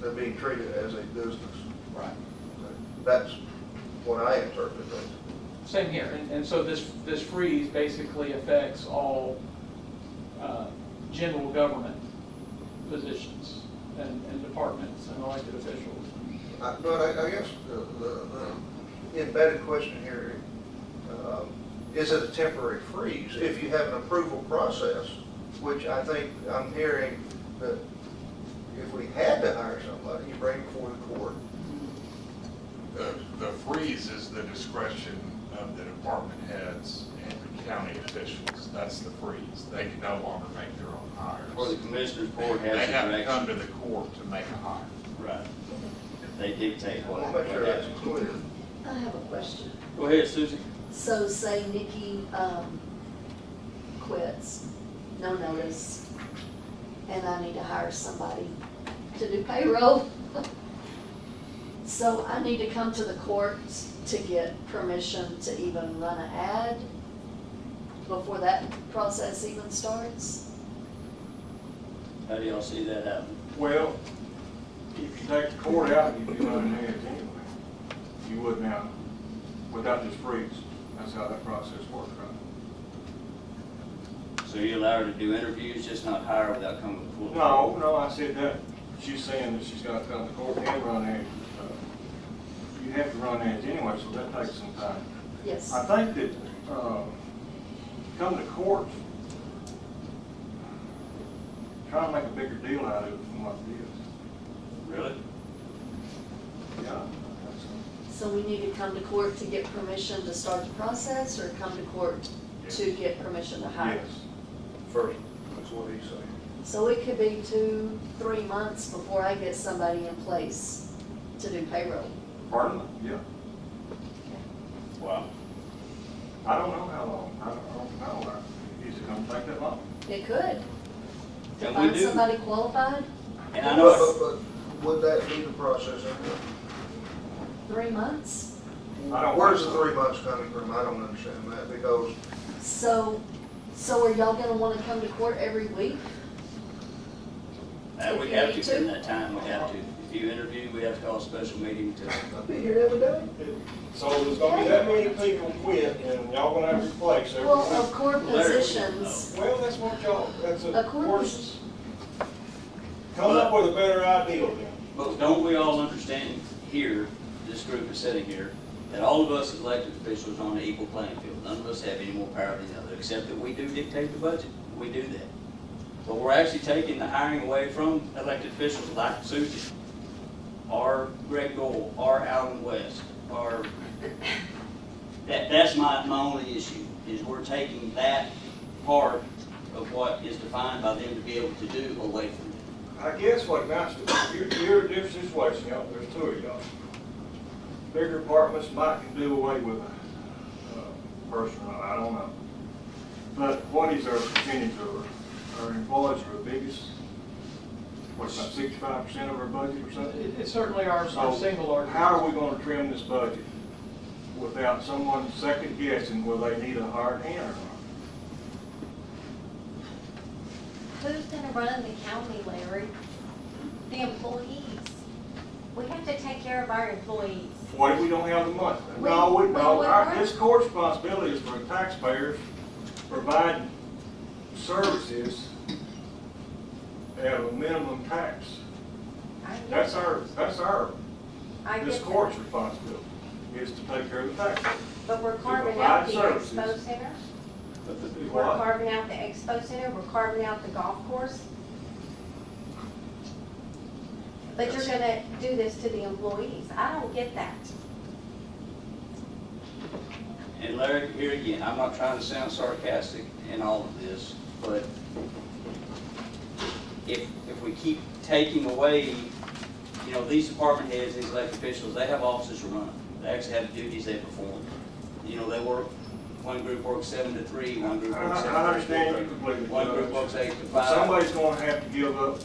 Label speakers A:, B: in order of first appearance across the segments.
A: they're being treated as a business.
B: Right.
A: That's what I interpret it.
B: Same here, and, and so this, this freeze basically affects all, uh, general government positions and, and departments and elected officials.
A: I- But I, I guess the, the the embedded question here, um, is it a temporary freeze? If you have an approval process, which I think I'm hearing that if we had to hire somebody, you bring before the court.
C: The, the freeze is the discretion of the department heads and the county officials. That's the freeze. They can no longer make their own
D: Or the
C: hires.
D: commissioners board has
C: They
D: the
C: have to come
D: direction.
C: to the court to make a hire.
D: Right. They dictate
A: I
D: what.
A: want to make sure that's
D: what
A: clear.
E: I have a question.
D: happens. Go ahead, Susie.
E: So say Nikki, um, quits, no notice, and I need to hire somebody to do payroll. So I need to come to the court to get permission to even run an ad before that process even starts?
D: How do y'all see that happen?
F: Well, if you take the court out, you'd be running ads anyway. You would now, without this freeze. That's how that process works, right?
D: So you allow her to do interviews, just not hire without coming to the full?
F: No, no, I said that, she's saying that she's gotta come to court and run ads. Uh, You have to run ads anyway, so that takes some time.
E: Yes.
F: I think that, uh, come to court, try to make a bigger deal out of it than what it
D: Really?
F: is. Yeah. that's-
E: So we need to come to court to get permission to start the process, or come to court to get permission to hire?
F: Yes.
A: First, that's what he's saying.
E: So it could be two, three months before I get somebody in place to do payroll.
F: Pardon? Yeah.
D: Wow.
F: I don't know how long, I don't, I don't know, is it gonna take that long?
E: It could. To
D: And we
E: find
D: do.
E: somebody qualified,
D: And I know,
A: But- but- but Would that be the process?
E: three months.
F: I don't-
A: Where's the three months coming from? I don't understand that because
E: So, so are y'all gonna wanna come to court every week?
D: that we
E: If you
D: have
E: need
D: to, in
E: to.
D: that time, we have to. If you interview, we have to call a special meeting to,
A: I'll be here every day.
G: So there's gonna be that many people quit and y'all gonna have to replace
E: Well, of
G: everyone.
E: court positions,
G: Well, that's what y'all, that's
E: Of
G: a
E: course.
G: worst. Come up with a better idea then.
D: but don't we all understand here, this group is sitting here, that all of us as elected officials are on an equal playing field. None of us have any more power than the other, except that we do dictate the budget. We do that. But we're actually taking the hiring away from elected officials like Susan, or Greg Gold, or Alan West, or, that, that's my, my only issue, is we're taking that part of what is defined by them to be able to do away from them.
G: I guess what amounts to, you're, you're in a different situation, y'all, there's two of y'all.
F: Bigger apartments might can do away with a, uh, person, I don't know. But what is our percentage of our, our employees are the biggest? What's about sixty-five percent of our budget or something?
B: It- It's certainly our, our single
F: So
B: largest.
F: How are we gonna trim this budget without someone second guessing whether they need a hard hand or not?
H: Who's gonna run the county, Larry? The employees. We have to take care of our employees.
F: What if we don't have the money? No,
H: We-
F: we, no,
H: we-
F: our,
H: we're-
F: this court's responsibility is for taxpayers providing services at a minimum tax.
H: I get
F: That's
H: that.
F: our, that's our,
H: I get
F: this
H: that.
F: court's responsibility, is to take care of the taxpayers.
H: But we're carving
F: provide
H: out the
F: services.
H: expo center.
F: But the-
H: We're
F: what?
H: carving out the expo center, we're carving out the golf course. But you're gonna do this to the employees. I don't get that.
D: And Larry, here again, I'm not trying to sound sarcastic in all of this, but if, if we keep taking away, you know, these department heads, these elected officials, they have offices to run. They actually have duties they perform. You know, they work, one group works seven to three, one group
F: I,
D: works
F: I
D: seven to three.
F: I understand you completely.
D: One group works
F: Judge.
D: eight to
F: But
D: five.
F: Somebody's gonna have to give up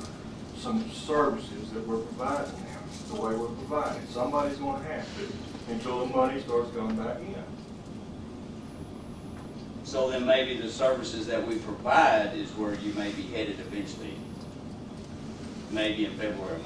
F: some services that we're providing now, the way we're providing. Somebody's gonna have to, until the money starts coming back in.
D: So then maybe the services that we provide is where you may be headed eventually, maybe in February,